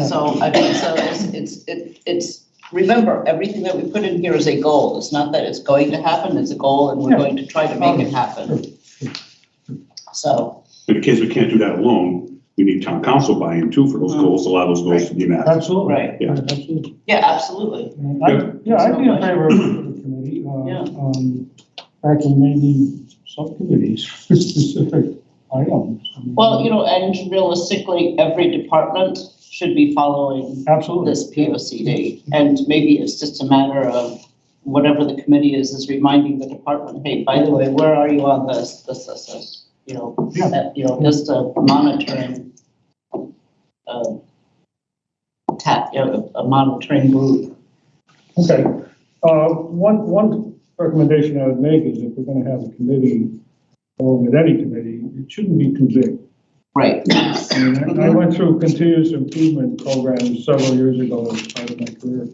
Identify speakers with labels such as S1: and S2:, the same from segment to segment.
S1: So I think so it's, it's, it- it's, remember, everything that we put in here is a goal. It's not that it's going to happen, it's a goal and we're
S2: Yeah.
S1: going to try to make it happen. So,
S3: But because we can't do that alone, we need town council buy-in too for those goals, a lot of those goals to be met.
S2: Absolutely.
S1: Right.
S3: Yeah.
S2: Absolutely.
S1: yeah, absolutely.
S2: And I- Yeah, I'd be in favor of the committee,
S1: Yeah.
S2: uh, um, fact, and maybe subcommittees for specific items.
S1: Well, you know, and realistically, every department should be following
S2: Absolutely.
S1: this P O C D. And maybe it's just a matter of whatever the committee is, is reminding the department, hey, by the way, where are you on this, this, this, this? You know,
S2: Yeah.
S1: that, you know, just a monitoring, um, tap, you know, a monitoring group.
S2: Okay, uh, one, one recommendation I would make is if we're gonna have a committee, or with any committee, it shouldn't be too big.
S1: Right.
S2: I mean, I I went through continuous improvement programs several years ago as part of my career.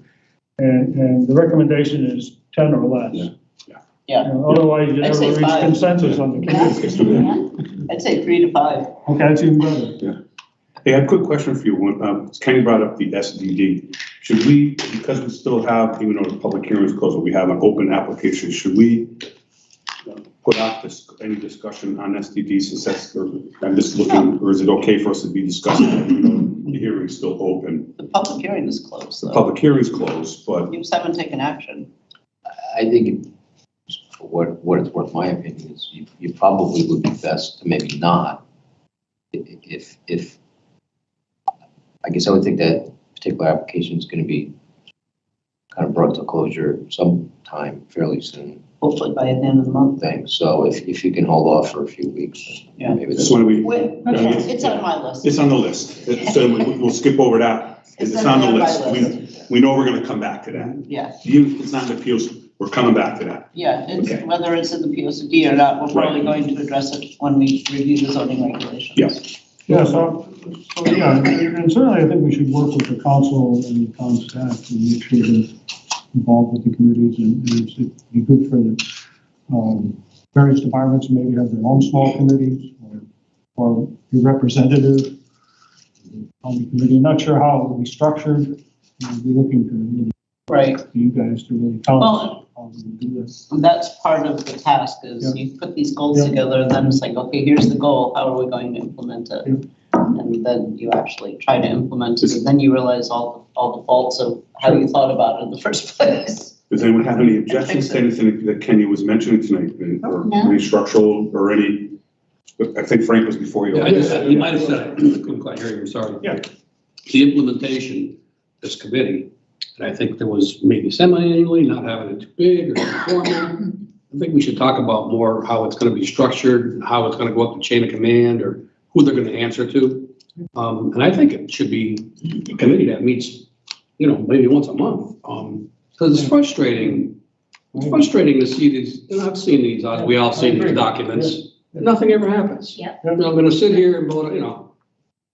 S2: And, and the recommendation is ten or less.
S3: Yeah, yeah.
S1: Yeah.
S2: You know, Uh, Otherwise, you
S1: I'd
S2: never
S1: say
S2: reach
S1: five.
S2: consensus on the committee.
S1: I'd say three to five.
S2: Okay, that's even better.
S3: Hey, I have a quick question for you. Um, Kenny brought up the SDD. Should we, because we still have, even though the public hearing is closed, but we have an open application, should we uh, put off this, any discussion on SDD since that's, or I'm just looking, or is it okay for us to be discussing? it, even though The hearing's still open.
S1: The public hearing is closed,
S3: The
S1: though.
S3: public hearing's closed, but
S1: You just haven't taken action.
S4: I think, it- for what, what it's worth, my opinion is you, you probably would be best to maybe not. I- i- If, if, I guess I would think that particular application is going to be kind of brought to closure sometime fairly soon,
S1: Hopefully by the end of the month.
S4: thanks. So if, if you can hold off for a few weeks,
S1: Yeah.
S4: maybe
S3: just
S4: that's.
S3: when we,
S1: Wait, it's on my list.
S3: it's on the list. So we- we'll skip over that. 'cause It's on the
S1: my
S3: list. We, we know we're gonna come back to that.
S1: Yeah,
S3: You, it's not an appeals, we're coming back to that.
S1: yeah, it's,
S3: Okay.
S1: whether it's in the P O C D or not, we're probably
S3: Right.
S1: going to address it when we review the zoning regulations.
S3: Yeah.
S2: Yeah, so, so, yeah, and certainly I think we should work with the council and the town staff and make sure they're involved with the committees and, and it'd be good for the, um, various departments, maybe have their own small committees or, or your representative on the committee. Not sure how it will be structured. We'll be looking to, really-
S1: Right,
S2: to you guys to really tell us how we do this.
S1: and that's part of the task is you put these goals
S2: Yeah.
S1: together and then it's like, okay, here's the goal, how are we going to implement it? And then you actually try to implement it and then you realize all, all the faults of how you thought about it in the first place.
S3: Does anyone have any objections to anything that Kenny was mentioning tonight? Or
S1: No.
S3: any structural or any, I think Frank was before you.
S5: Yeah, I just, you might have said, I couldn't quite hear you, I'm sorry.
S2: Yeah.
S5: The implementation, this committee, and I think there was maybe semi-annually, not having it too big or too formal. I think we should talk about more how it's gonna be structured, and how it's gonna go up the chain of command, or who they're gonna answer to. Um, and I think it should be a committee that meets, you know, maybe once a month, um, because it's frustrating. It's frustrating to see these, and I've seen these, uh, we all seen these documents, nothing ever happens. I'm not gonna sit here and vote, you know,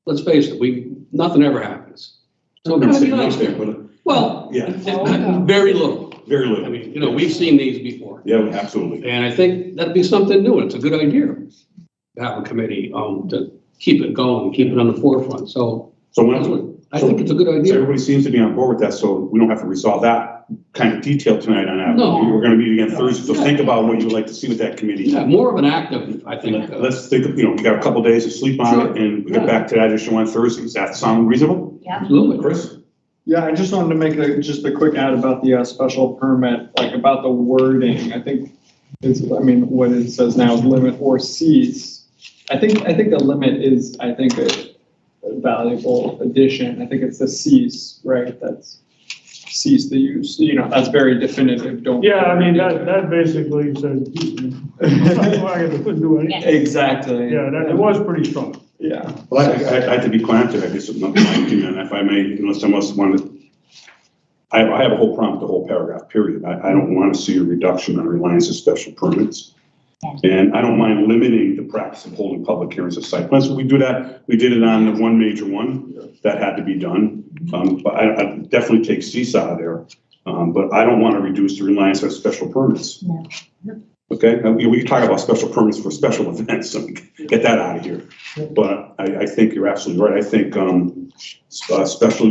S5: let's face it, we, nothing ever happens. So
S3: I'm
S5: it kind
S3: not
S5: of be
S3: saying
S5: nice
S3: nothing,
S5: there.
S3: but
S5: Well,
S3: Yeah.
S5: very little.
S3: very
S5: I
S3: little.
S5: mean, you know, we've seen these before.
S3: Yeah, absolutely.
S5: And I think that'd be something new. It's a good idea to have a committee, um, to keep it going, keep it on the forefront. So
S3: So
S5: that's
S3: when,
S5: what, I think it's a good
S3: so
S5: idea.
S3: everybody seems to be on board with that, so we don't have to resolve that kind of detail tonight on that.
S5: No.
S3: We're gonna meet again Thursday, so think about what you would like to see with that committee.
S5: Yeah, more of an active, I think. uh,
S3: Let's think, of you know, we got a couple days to sleep on it and we get
S5: Sure.
S3: back to that issue on Thursday. Does that sound reasonable?
S5: Absolutely.
S3: Chris?
S6: Yeah, I just wanted to make a, just a quick add about the uh, special permit, like about the wording. I think it's, I mean, what it says now is limit or cease. I think, I think the limit is, I think, a a valuable addition. I think it's the cease, right? That's cease the use, you know, that's very definitive, don't.
S2: Yeah, I mean, that, that basically says, I couldn't do anything.
S6: Exactly.
S2: Yeah, that, it was pretty strong.
S6: Yeah.
S3: Well, I, I, I have to be granted, I guess, not my opinion, if I may, unless someone else wanted. I, I have a whole problem with the whole paragraph, period. I, I don't want to see a reduction on reliance of special permits. And I don't mind limiting the practice of holding public hearings of site plans. We do that, we did it on the one major one that had to be done. Um, but I, I definitely take cease out of there. Um, but I don't want to reduce the reliance on special permits.
S7: No.
S3: Okay, Now, we, we can talk about special permits for special events, so we can get that out of here. But I, I think you're absolutely right. I think, um, s- uh, special